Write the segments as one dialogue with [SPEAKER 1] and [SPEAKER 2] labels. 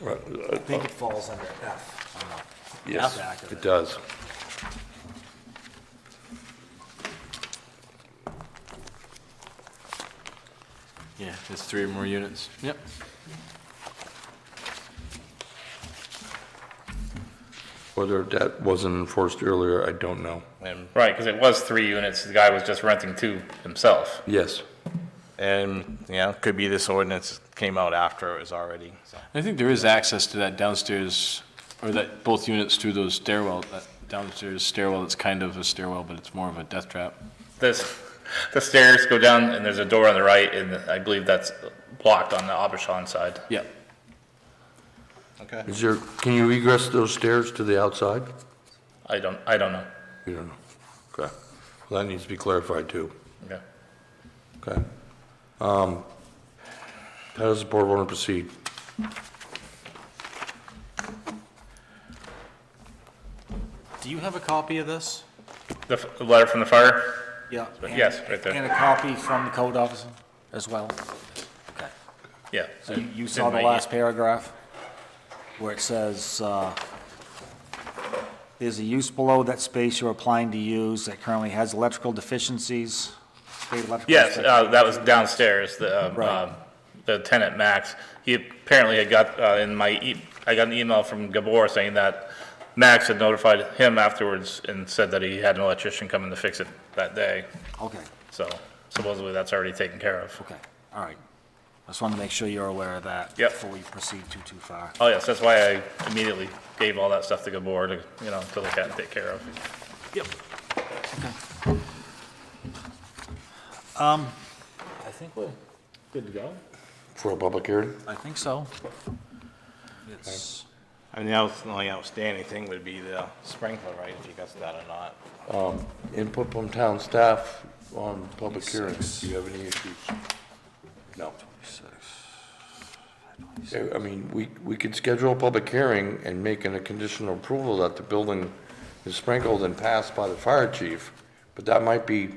[SPEAKER 1] Right,
[SPEAKER 2] I think it falls under F. on the
[SPEAKER 1] Yes,
[SPEAKER 2] back of
[SPEAKER 1] it does.
[SPEAKER 3] Yeah, it's three or more units. Yep.
[SPEAKER 1] Whether that wasn't enforced earlier, I don't know.
[SPEAKER 4] And, right, because it was three units, the guy was just renting two himself.
[SPEAKER 1] Yes,
[SPEAKER 4] And, yeah, could be this ordinance came out after it was already, so.
[SPEAKER 3] I think there is access to that downstairs, or that, both units through those stairwell, that downstairs stairwell, it's kind of a stairwell, but it's more of a death trap.
[SPEAKER 4] This, the stairs go down and there's a door on the right and I believe that's blocked on the Abishan side.
[SPEAKER 3] Yeah.
[SPEAKER 4] Okay.
[SPEAKER 1] is there, can you egress those stairs to the outside?
[SPEAKER 4] I don't, I don't know.
[SPEAKER 1] You don't know. Okay, well, that needs to be clarified too.
[SPEAKER 4] Okay.
[SPEAKER 1] Okay. Um, How does the board want to proceed?
[SPEAKER 2] Do you have a copy of this?
[SPEAKER 4] The f- the letter from the fire?
[SPEAKER 2] Yeah.
[SPEAKER 4] Yes, right there.
[SPEAKER 2] And a copy from the code officer as well?
[SPEAKER 4] Yeah.
[SPEAKER 2] So you- you saw the
[SPEAKER 4] Didn't
[SPEAKER 2] last paragraph where it says, uh, there's a use below that space you're applying to use that currently has electrical deficiencies. state electrical
[SPEAKER 4] Yes,
[SPEAKER 2] spec-
[SPEAKER 4] uh, that was downstairs, the, um,
[SPEAKER 2] Right.
[SPEAKER 4] um, the tenant, Max. He apparently had got, uh, in my, e- I got an email from Gabor saying that Max had notified him afterwards and said that he had an electrician coming to fix it that day.
[SPEAKER 2] Okay,
[SPEAKER 4] So supposedly that's already taken care of.
[SPEAKER 2] okay, all right. I just wanted to make sure you're aware of that.
[SPEAKER 4] Yep.
[SPEAKER 2] Before we proceed too, too far.
[SPEAKER 4] Oh, yes, that's why I immediately gave all that stuff to Gabor to, you know, to look at and take care of.
[SPEAKER 2] I think we're good to go.
[SPEAKER 1] For a public hearing?
[SPEAKER 2] I think so. It's,
[SPEAKER 4] And the only outstanding thing would be the sprinkler, right, if you got that or not.
[SPEAKER 1] Input from town staff on public hearings. Do you have any issues? No. I I mean, we, we could schedule a public hearing and make an a conditional approval that the building is sprinkled and passed by the fire chief, but that might be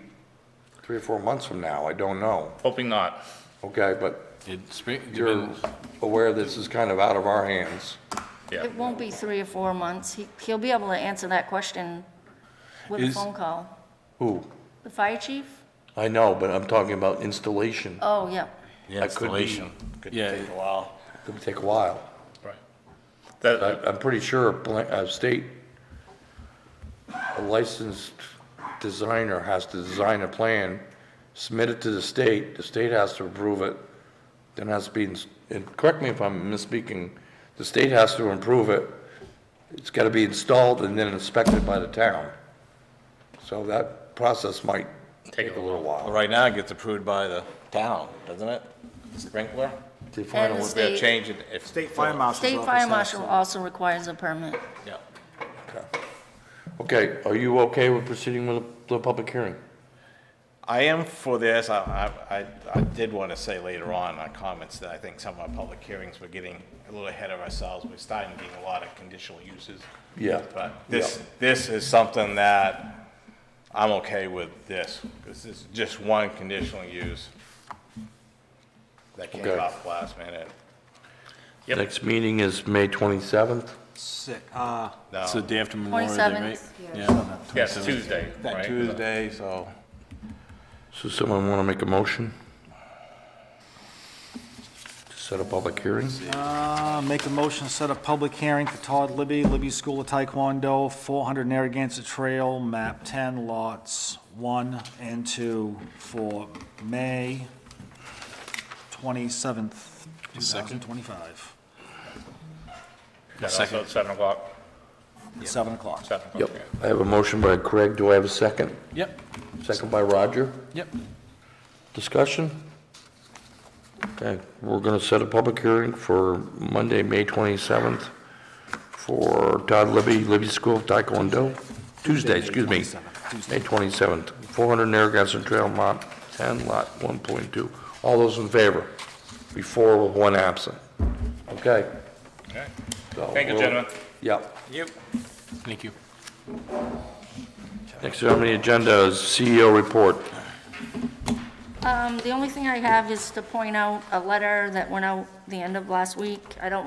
[SPEAKER 1] three or four months from now. I don't know.
[SPEAKER 4] Hoping not.
[SPEAKER 1] Okay, but
[SPEAKER 3] It's, been-
[SPEAKER 1] you're aware this is kind of out of our hands.
[SPEAKER 4] Yeah.
[SPEAKER 5] It won't be three or four months. He- He'll be able to answer that question with a
[SPEAKER 3] Is-
[SPEAKER 5] phone call.
[SPEAKER 1] Who?
[SPEAKER 5] The fire chief?
[SPEAKER 1] I know, but I'm talking about installation.
[SPEAKER 5] Oh, yeah.
[SPEAKER 1] That could be- installation.
[SPEAKER 4] Could
[SPEAKER 3] Yeah.
[SPEAKER 4] take a while.
[SPEAKER 1] It'll take a while.
[SPEAKER 4] Right.
[SPEAKER 1] I,
[SPEAKER 4] That,
[SPEAKER 1] I'm pretty sure a blan- a state a licensed designer has to design a plan, submit it to the state, the state has to approve it, then has to be, ins- and correct me if I'm misspeaking, the state has to approve it, it's gotta be installed and then inspected by the town. So that process might take a little
[SPEAKER 6] Well,
[SPEAKER 1] while.
[SPEAKER 6] Right now, it gets approved by the town, doesn't it? Sprinkler?
[SPEAKER 1] to find
[SPEAKER 5] And
[SPEAKER 1] out
[SPEAKER 5] the
[SPEAKER 1] what-
[SPEAKER 6] They're
[SPEAKER 5] state,
[SPEAKER 6] changing it.
[SPEAKER 2] state fire marshal's
[SPEAKER 5] state
[SPEAKER 2] office
[SPEAKER 5] fire
[SPEAKER 2] has
[SPEAKER 5] marshal
[SPEAKER 2] to-
[SPEAKER 5] also requires a permit.
[SPEAKER 6] Yeah.
[SPEAKER 1] Okay, are you okay with proceeding with the the public hearing?
[SPEAKER 6] I am for this. I, I- I, I did want to say later on, our comments, that I think some of our public hearings, we're getting a little ahead of ourselves. We're starting to get a lot of conditional uses.
[SPEAKER 1] Yeah.
[SPEAKER 6] But this, this is something that I'm okay with this. This is just one conditional use that came
[SPEAKER 1] Okay.
[SPEAKER 6] up last minute.
[SPEAKER 4] Yep.
[SPEAKER 1] Next meeting is May 27th?
[SPEAKER 2] Sick, uh,
[SPEAKER 6] No,
[SPEAKER 3] it's the day after Memorial Day, right?
[SPEAKER 5] 27th,
[SPEAKER 3] Yeah.
[SPEAKER 4] yes, Tuesday,
[SPEAKER 6] that
[SPEAKER 4] right?
[SPEAKER 6] Tuesday, so.
[SPEAKER 1] So someone want to make a motion? to Set a public hearing?
[SPEAKER 2] Uh, Make a motion, to set a public hearing for Todd Libby, Libby School of Taekwondo, 400 Narragansett Trail, map 10, lots 1 and 2, for May 27th, 2025,
[SPEAKER 4] That's also at seven o'clock,
[SPEAKER 2] 7 o'clock.
[SPEAKER 4] seven o'clock.
[SPEAKER 1] Yep, I have a motion by Craig, do I have a second?
[SPEAKER 3] Yep,
[SPEAKER 1] Second by Roger,
[SPEAKER 3] yep.
[SPEAKER 1] discussion? Okay, we're going to set a public hearing for Monday, May 27th, for Todd Libby, Libby School of Taekwondo, Tuesday, excuse me, May 27th, 400 Narragansett Trail, Mont 10, Lot 1.2. All those in favor? Before with one absent. Okay?
[SPEAKER 4] Okay.
[SPEAKER 1] So
[SPEAKER 4] Thank you,
[SPEAKER 1] we'll-
[SPEAKER 4] gentlemen.
[SPEAKER 1] Yep.
[SPEAKER 3] Thank you.
[SPEAKER 1] Next on the agenda is CEO report.
[SPEAKER 5] Um, The only thing I have is to point out a letter that went out the end of last week. I don't